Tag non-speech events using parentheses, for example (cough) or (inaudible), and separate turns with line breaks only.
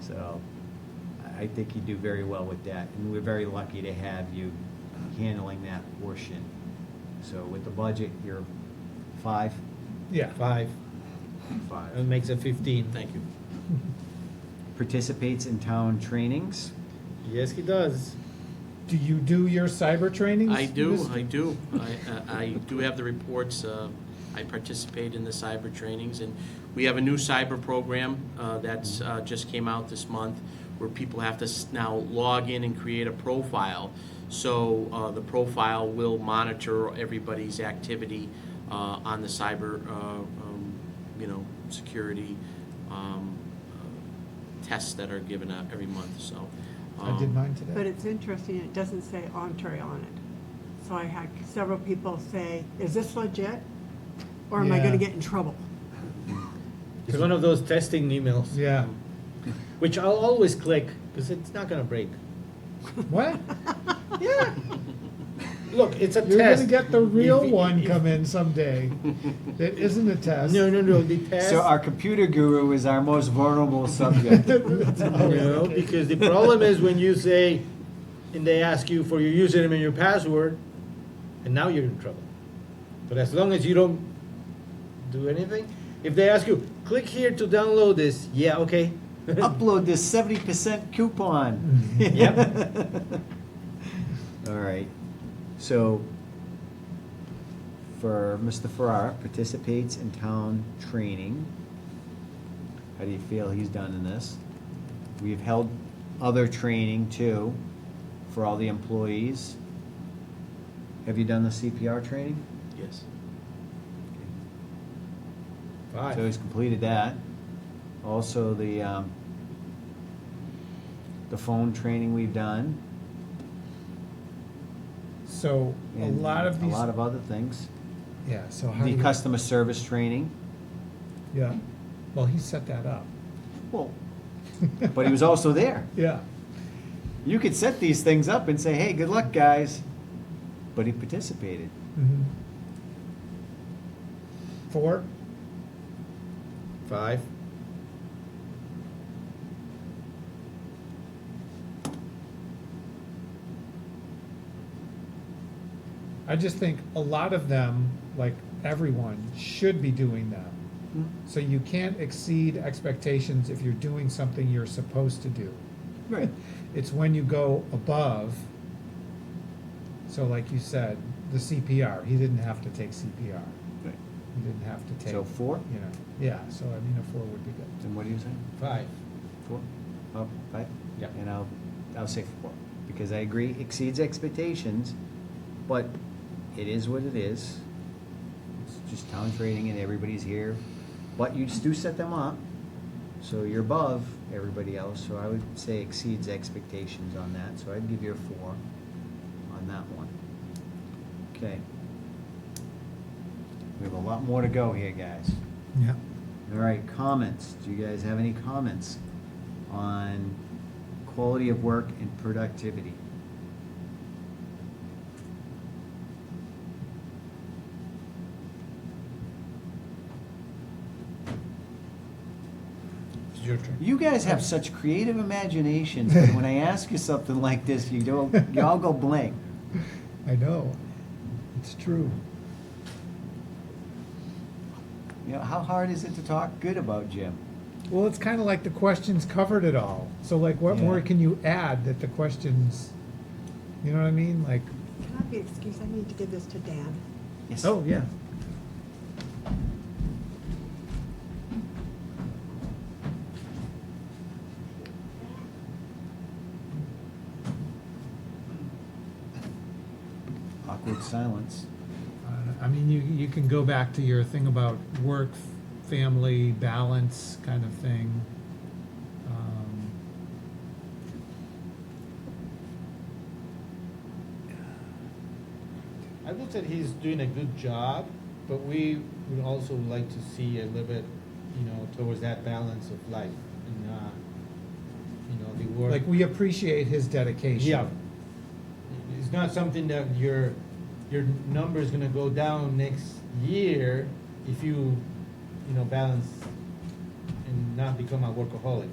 So I- I think you do very well with that, and we're very lucky to have you handling that portion. So with the budget, you're five?
Yeah, five. That
Five.
makes it fifteen.
Thank you.
Participates in town trainings?
Yes, he does. Do you do your cyber trainings?
I do,
Mr.?
I do. I, uh, I- I do have the reports. uh, I participate in the cyber trainings, and we have a new cyber program uh, that's, uh, just came out this month, where people have to s- now log in and create a profile. So uh, the profile will monitor everybody's activity uh, on the cyber, uh, um, you know, security um, uh, tests that are given out every month, so.
I did
um,
mine
But
today.
it's interesting, it doesn't say entree on it. So I had several people say, is this legit? Or am I
Yeah.
gonna get in trouble?
It's one of those testing emails,
Yeah.
which I'll always click because it's not gonna break.
What?
Yeah. Look, it's a
You're gonna
test.
get the real
(laughs) If-
one
if-
come in someday. That isn't a test.
No,
(laughs)
no, no. The test.
So our computer guru is our most vulnerable subject.
(laughs) Oh, no, because the problem is when you say, and they ask you for your username and your password, and now you're in trouble. But as long as you don't do anything, if they ask you, click here to download this. Yeah, okay.
Upload this seventy percent coupon.
Yep.
(laughs) All right, so for Mr. Farrar, participates in town training. How do you feel he's done in this? We've held other training too, for all the employees. Have you done the CPR training?
Yes.
(laughs) Five.
So he's completed that. Also, the, um, the phone training we've done.
So a
and
lot of these.
A lot of other things.
Yeah, so how do
The
we?
customer service training.
Yeah. Well, he set that up. (laughs)
Well, but he was also there.
Yeah.
You could set these things up and say, hey, good luck, guys. But he participated.
Mhm. Four?
Five.
I just think a lot of them, like everyone, should be doing them. So you can't exceed expectations if you're doing something you're supposed to do.
Right.
It's when you go above. So like you said, the CPR, he didn't have to take CPR.
Right.
He didn't have to take.
So four?
You know, yeah, so I mean, a four would be good.
Then what do you say?
Five.
Four, oh, five?
Yeah.
And I'll, I'll say four, because I agree, exceeds expectations, but it is what it is. It's just town trading and everybody's here, but you just do set them up, so you're above everybody else, so I would say exceeds expectations on that, so I'd give you a four on that one. Okay. We have a lot more to go here, guys.
Yeah.
All right, comments. Do you guys have any comments on quality of work and productivity?
It's your turn.
You guys have such creative imaginations, but when I ask you something like this, you don't, you all go blank.
I know, it's true.
You know, how hard is it to talk good about Jim?
Well, it's kind of like the questions covered it all. So like, what
Yeah.
more can you add that the questions, you know what I mean? Like,
Can I be excused, I need to give this to Dan.
Yes.
oh, yeah.
Awkward silence.
Uh, I mean, you, you can go back to your thing about work, f- family, balance kind of thing. Um,
I would say he's doing a good job, but we would also like to see a little bit, you know, towards that balance of life and, uh, you know, the work.
Like, we appreciate his dedication.
Yeah. It's not something that your, your number's gonna go down next year if you, you know, balance and not become a workaholic.